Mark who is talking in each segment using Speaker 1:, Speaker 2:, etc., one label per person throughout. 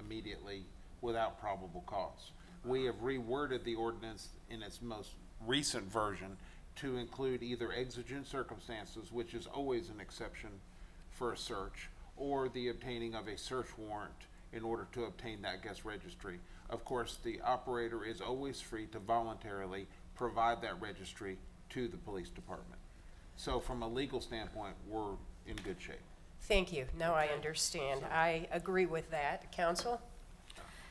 Speaker 1: immediately without probable cause. We have reworded the ordinance in its most recent version to include either exigent circumstances, which is always an exception for a search, or the obtaining of a search warrant in order to obtain that guest registry. Of course, the operator is always free to voluntarily provide that registry to the police department. So from a legal standpoint, we're in good shape.
Speaker 2: Thank you. Now I understand. I agree with that. Counsel?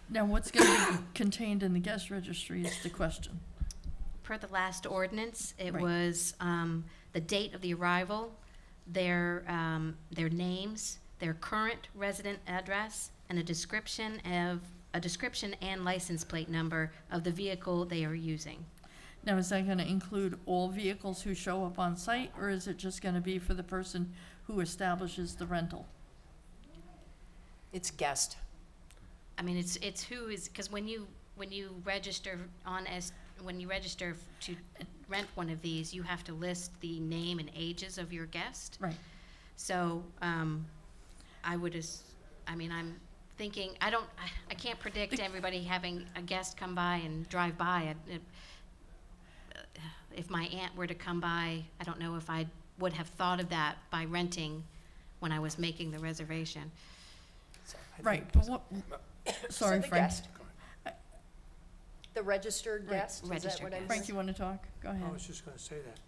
Speaker 3: Now, what's going to be contained in the guest registry is the question.
Speaker 4: Per the last ordinance, it
Speaker 3: Right.
Speaker 4: was um, the date of the arrival, their, um, their names, their current resident address, and a description of, a description and license plate number of the vehicle they are using.
Speaker 3: Now, is that going to include all vehicles who show up on site, or is it just going to be for the person who establishes the rental?
Speaker 2: It's guest.
Speaker 4: I mean, it's, it's who is, because when you, when you register on as, when you register to rent one of these, you have to list the name and ages of your guest.
Speaker 3: Right.
Speaker 4: So, um, I would as, I mean, I'm thinking, I don't, I, I can't predict everybody having a guest come by and drive by. I- it- If my aunt were to come by, I don't know if I would have thought of that by renting when I was making the reservation.
Speaker 2: So I think-
Speaker 3: Right, but what,
Speaker 2: So
Speaker 3: sorry,
Speaker 2: the
Speaker 3: Frank.
Speaker 2: guest. The registered guest, is that
Speaker 4: registered
Speaker 2: what I
Speaker 4: guest.
Speaker 3: Frank,
Speaker 2: heard?
Speaker 3: you want to talk?
Speaker 2: Oh,
Speaker 3: Go
Speaker 5: I
Speaker 3: ahead.
Speaker 5: was just gonna say that,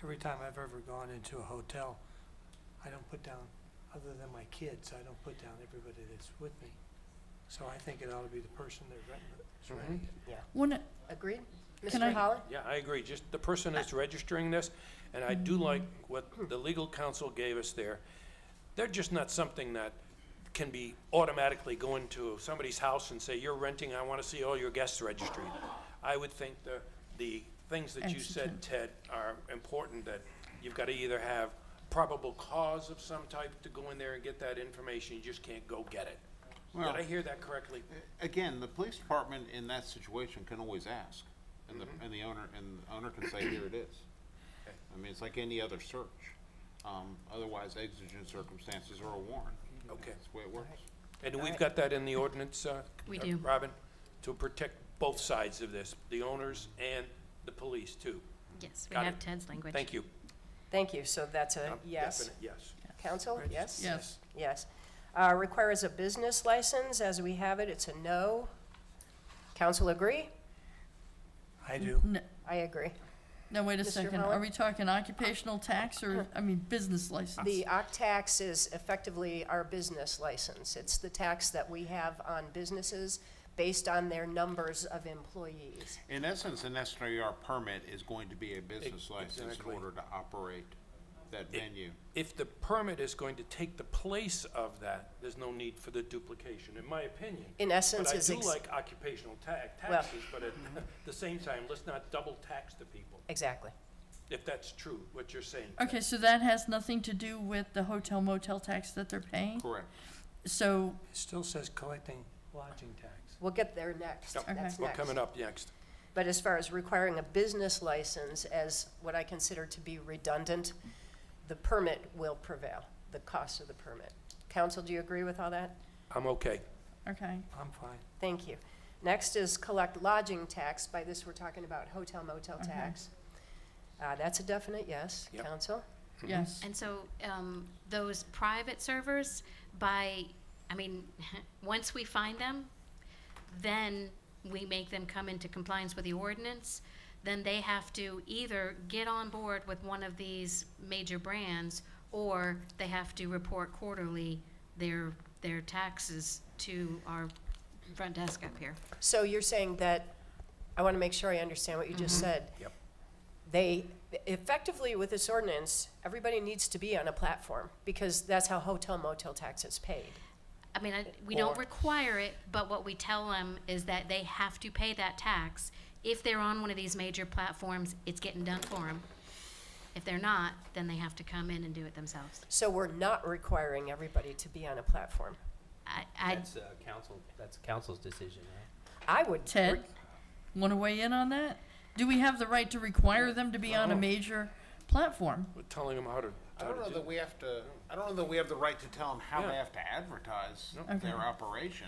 Speaker 5: every time I've ever gone into a hotel, I don't put down, other than my kids, I don't put down everybody that's with me. So I think it ought to be the person that renting it, is renting it.
Speaker 3: One,
Speaker 2: Agreed?
Speaker 3: Can I-
Speaker 2: Mr. Holland?
Speaker 6: Yeah, I agree, just the person that's registering this, and I do like what the legal counsel gave us there. They're just not something that can be automatically go into somebody's house and say, you're renting, I want to see all your guests registry. I would think the, the things that you said,
Speaker 3: Exigent.
Speaker 6: Ted, are important, that you've got to either have probable cause of some type to go in there and get that information, you just can't go get it. Did I
Speaker 1: Well-
Speaker 6: hear that correctly?
Speaker 1: Again, the police department in that situation can always ask, and the, and the owner, and the owner can say, here it is. I mean, it's like any other search, um, otherwise exigent circumstances or a warrant.
Speaker 6: Okay.
Speaker 1: That's the way it works.
Speaker 6: And we've got that in the ordinance, uh,
Speaker 4: We
Speaker 6: uh,
Speaker 4: do.
Speaker 6: Robin, to protect both sides of this, the owners and the police too.
Speaker 4: Yes, we
Speaker 6: Got
Speaker 4: have
Speaker 6: it.
Speaker 4: Ted's language.
Speaker 6: Thank you.
Speaker 2: Thank you. So that's a
Speaker 6: Um,
Speaker 2: Uh, yes.
Speaker 6: definite Yes.
Speaker 2: Counsel, yes?
Speaker 3: yes,
Speaker 2: Yes. Uh, Requires a business license, as we have it, it's a no. Counsel agree?
Speaker 5: I do.
Speaker 3: N-
Speaker 2: I agree.
Speaker 3: now, wait a
Speaker 2: Mr.
Speaker 3: second, are
Speaker 2: Holland?
Speaker 3: we talking occupational tax or, I mean, business license?
Speaker 2: The OCTAX is effectively our business license. It's the tax that we have on businesses based on their numbers of employees.
Speaker 1: In essence, an SNR permit is going to be a business license in
Speaker 6: exactly.
Speaker 1: order to operate that venue.
Speaker 6: If the permit is going to take the place of that, there's no need for the duplication, in my opinion.
Speaker 2: In essence, is ex-
Speaker 6: But I do like occupational ta-
Speaker 2: Well- mm-hmm.
Speaker 6: taxes, but at the same time, let's not double tax the people,
Speaker 2: Exactly.
Speaker 6: if that's true, what you're saying.
Speaker 3: Okay, so that has nothing to do with the hotel motel tax that they're paying?
Speaker 1: Correct.
Speaker 3: So,
Speaker 5: It still says collecting lodging tax.
Speaker 2: We'll get there next.
Speaker 6: Yep.
Speaker 2: That's
Speaker 6: We're
Speaker 2: next.
Speaker 6: coming up next.
Speaker 2: But as far as requiring a business license as what I consider to be redundant, the permit will prevail, the cost of the permit. Counsel, do you agree with all that?
Speaker 6: I'm okay.
Speaker 3: okay,
Speaker 5: I'm fine.
Speaker 2: Thank you. Next is collect lodging tax. By this, we're talking about hotel motel tax. Uh, that's a definite yes.
Speaker 6: Yep.
Speaker 2: Counsel?
Speaker 3: yes.
Speaker 4: And so, um, those private servers, by, I mean, once we find them, then we make them come into compliance with the ordinance. Then they have to either get on board with one of these major brands, or they have to report quarterly their, their taxes to our front desk up here.
Speaker 2: So you're saying that, I want to make sure I understand what you just said.
Speaker 6: Yep.
Speaker 2: They, effectively with this ordinance, everybody needs to be on a platform because that's how hotel motel tax is paid.
Speaker 4: I mean, I, we don't
Speaker 2: Or-
Speaker 4: require it, but what we tell them is that they have to pay that tax. If they're on one of these major platforms, it's getting done for them. If they're not, then they have to come in and do it themselves.
Speaker 2: So we're not requiring everybody to be on a platform.
Speaker 4: I, I,
Speaker 7: That's uh, council, that's council's decision, right?
Speaker 2: I would. re-
Speaker 3: Ted, want to weigh in on that? Do we have the right to require them to be on a major platform?
Speaker 6: We're telling them how to,
Speaker 1: I
Speaker 6: how
Speaker 1: don't
Speaker 6: to
Speaker 1: know
Speaker 6: do
Speaker 1: that we have to, I don't know that we have the right to tell them how they
Speaker 6: Yeah.
Speaker 1: have to advertise
Speaker 3: Okay.
Speaker 1: their operation.